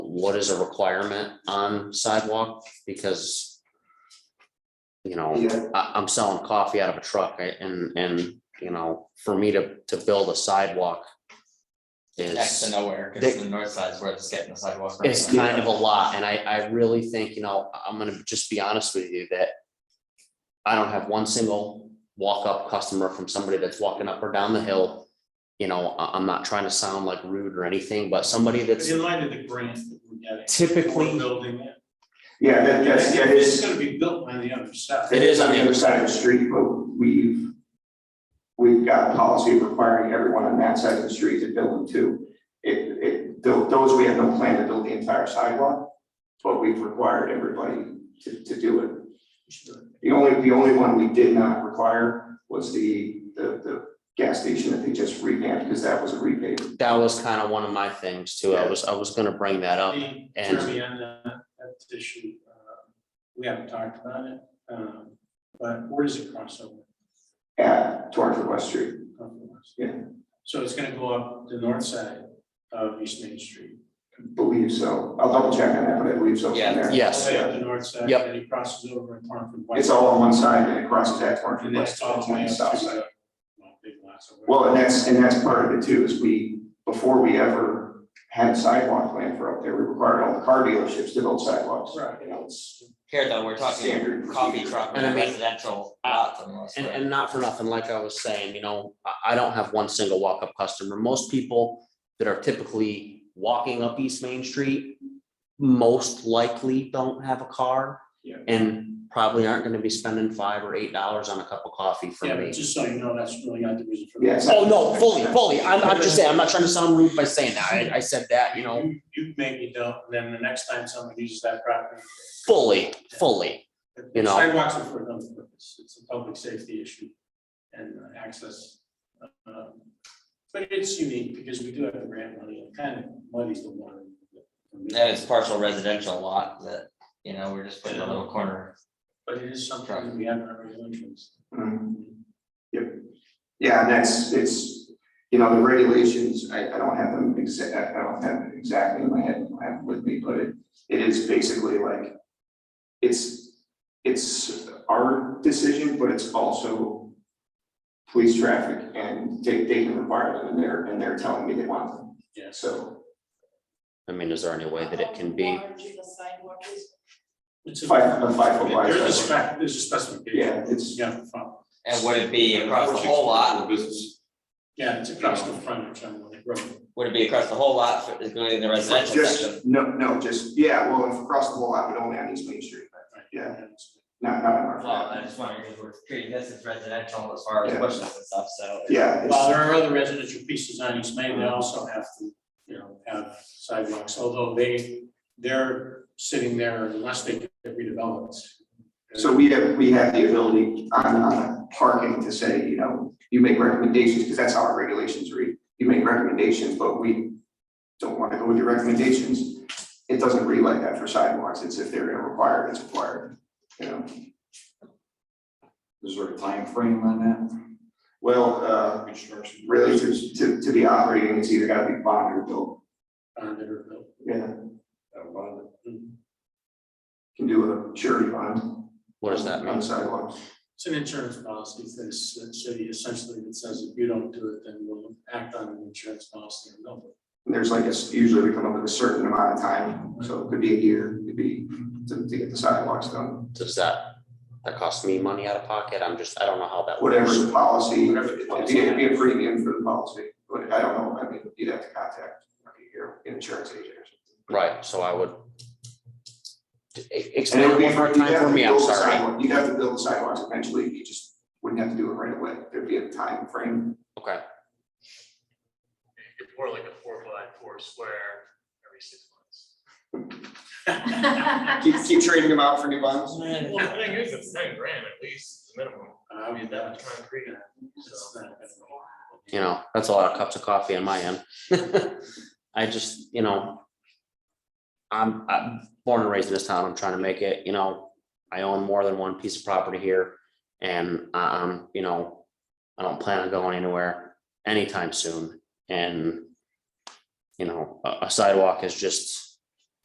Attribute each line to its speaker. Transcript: Speaker 1: what is a requirement on sidewalk, because. You know,
Speaker 2: Yeah.
Speaker 1: I, I'm selling coffee out of a truck I- and, and, you know, for me to, to build a sidewalk.
Speaker 3: next
Speaker 1: Is,
Speaker 3: to nowhere,
Speaker 1: They-
Speaker 3: because the north side's where it's getting the sidewalk. right
Speaker 1: it's
Speaker 3: now.
Speaker 1: kind of a lot, and I, I really think, you know, I'm gonna just be honest with you that. I don't have one single walk-up customer from somebody that's walking up or down the hill. You know, I, I'm not trying to sound like rude or anything, but somebody that's
Speaker 4: In light of the grants that we're getting.
Speaker 1: Typically-
Speaker 4: we're Building it.
Speaker 2: Yeah, that, that's, that
Speaker 4: It's
Speaker 2: is,
Speaker 4: gonna be built on the other side.
Speaker 1: It is on the other
Speaker 2: side of the street, but we've, we've got a policy requiring everyone on that side of the street to build them too. It, it, tho- those, we have no plan to build the entire sidewalk, but we've required everybody to, to do it. The only, the only one we did not require was the, the, the gas station that they just revamped, because that was a repave.
Speaker 1: that was kind of one of my things too. I was, I was gonna bring that
Speaker 2: um,
Speaker 1: up.
Speaker 4: The
Speaker 1: and-
Speaker 4: Jeremy, on that, that issue, uh, we haven't talked about it, um, but where does it cross over?
Speaker 2: at Torrenford West Street. Yeah.
Speaker 4: So it's gonna go up the north side of East Main Street.
Speaker 2: Believe so. I'll double check on that, but I believe so from
Speaker 3: Yeah.
Speaker 2: there.
Speaker 1: Yes.
Speaker 4: Way up the north side,
Speaker 1: Yep.
Speaker 4: and it crosses over in Torrenford West.
Speaker 2: It's all on one side and it crosses at Torrenford
Speaker 4: And
Speaker 2: West,
Speaker 4: that's all
Speaker 2: that's
Speaker 4: the
Speaker 2: on
Speaker 4: way
Speaker 2: the
Speaker 4: up
Speaker 2: south
Speaker 4: to
Speaker 2: side.
Speaker 4: the, well, big lots over.
Speaker 2: Well, and that's, and that's part of it too, is we, before we ever had sidewalk plan for up there, we required all the car dealerships to build sidewalks.
Speaker 4: Right.
Speaker 2: You know, it's,
Speaker 3: Here though, we're talking
Speaker 2: Standard
Speaker 3: coffee
Speaker 2: procedure.
Speaker 3: truck
Speaker 1: And I mean-
Speaker 3: residential lots almost.
Speaker 1: And,
Speaker 3: right?
Speaker 1: and not for nothing, like I was saying, you know, I, I don't have one single walk-up customer. Most people that are typically walking up East Main Street most likely don't have a car.
Speaker 4: Yeah.
Speaker 1: And probably aren't gonna be spending five or eight dollars on a cup of coffee
Speaker 4: Yeah,
Speaker 1: from
Speaker 4: but
Speaker 1: me.
Speaker 4: just so you know, that's really not the reason for.
Speaker 2: Yeah, it's
Speaker 4: that.
Speaker 2: not-
Speaker 1: Oh, no, fully, fully. I'm, I'm just saying, I'm not trying to sound rude by saying that. I, I said that, you know,
Speaker 4: You make me don't, and then the next time someone uses that property.
Speaker 1: fully, fully. You know.
Speaker 4: Sidewalks are for another purpose, it's a public safety issue and uh, access. Um, But it's unique because we do have the grant money, it kind of muddies the water.
Speaker 3: That is partial residential lot that, you know, we're just putting a little corner.
Speaker 4: But it is something that we have in our regulations.
Speaker 2: mm, Yep. Yeah, and that's, it's, you know, the regulations, I, I don't have them exact, I don't have it exactly in my head, I don't have it with me, but it, it is basically like, it's, it's our decision, but it's also police traffic and they, they can require them and they're, and they're telling me they want them,
Speaker 4: Yes.
Speaker 2: so.
Speaker 1: I mean, is there any way that it can be?
Speaker 5: How large the sidewalk is?
Speaker 4: It's a-
Speaker 2: Five- a five foot wide
Speaker 4: There's a
Speaker 2: sidewalk.
Speaker 4: spec, there's a specification.
Speaker 2: Yeah, it's,
Speaker 4: Yeah, the front.
Speaker 3: And would it be across the whole lot?
Speaker 4: yeah, it's across the frontage on the road.
Speaker 3: Would it be across the whole lot, for- including the residential section?
Speaker 2: just, no, no, just, yeah, well, if across the whole lot, but only on East Main Street,
Speaker 4: Right.
Speaker 2: Yeah. not, not in our.
Speaker 3: Well, I just wondered, because we're treating this as residential as far as
Speaker 2: Yeah.
Speaker 3: bushes and stuff, so.
Speaker 2: Yeah,
Speaker 4: While
Speaker 2: it's,
Speaker 4: there are other residential pieces on East Main, they also have to, you know, have sidewalks, although they, they're sitting there unless they get redeveloped.
Speaker 2: so we have, we have the ability on, on parking to say, you know, you make recommendations, because that's how our regulations read. You make recommendations, but we don't want to go with your recommendations. It doesn't read like that for sidewalks, it's if they're gonna require, it, it's required, you know.
Speaker 6: Is there a time frame on
Speaker 2: Well, uh,
Speaker 6: that? Construction.
Speaker 2: really, to, to, to be operating, it's either gotta be bonded or built,
Speaker 4: On their bill.
Speaker 2: yeah,
Speaker 6: About it.
Speaker 2: can do a surety bond.
Speaker 1: What does that
Speaker 2: On
Speaker 1: mean?
Speaker 2: the sidewalks.
Speaker 4: It's an insurance policy for this city essentially that says if you don't do it, then we'll act on an insurance policy and no.
Speaker 2: And There's like, it's usually we come up with a certain amount of time, so it could be a year, it could be to, to get the sidewalks done.
Speaker 1: Does that, that cost me money out of pocket? I'm just, I don't know how that works.
Speaker 2: Whatever the policy,
Speaker 4: Whatever the
Speaker 2: it'd be, it'd be a premium for the policy, but I don't know, I mean, you'd have to contact like, your insurance agent or something.
Speaker 1: Right, so I would. E-
Speaker 2: And
Speaker 1: Explain
Speaker 2: it
Speaker 1: it
Speaker 2: would be,
Speaker 1: one more
Speaker 2: you'd
Speaker 1: time
Speaker 2: have
Speaker 1: for
Speaker 2: to
Speaker 1: me, I'm
Speaker 2: build the
Speaker 1: sorry.
Speaker 2: sidewalk, you'd have to build the sidewalks eventually, you just wouldn't have to do it right away, there'd be a time frame.
Speaker 1: Okay,
Speaker 7: It's more like a four by four square every six months.
Speaker 2: Keep, keep trading them out for new bonds.
Speaker 3: Yeah.
Speaker 7: Well, I think it's it's ten grand at least, is the minimum.
Speaker 4: I mean,
Speaker 7: That much concrete.
Speaker 4: It's not gonna-
Speaker 1: you know, that's a lot of cups of coffee on my end. I just, you know. I'm, I'm born and raised in this town, I'm trying to make it, you know, I own more than one piece of property here. And um, you know, I don't plan on going anywhere anytime soon and. You know, a a sidewalk is just.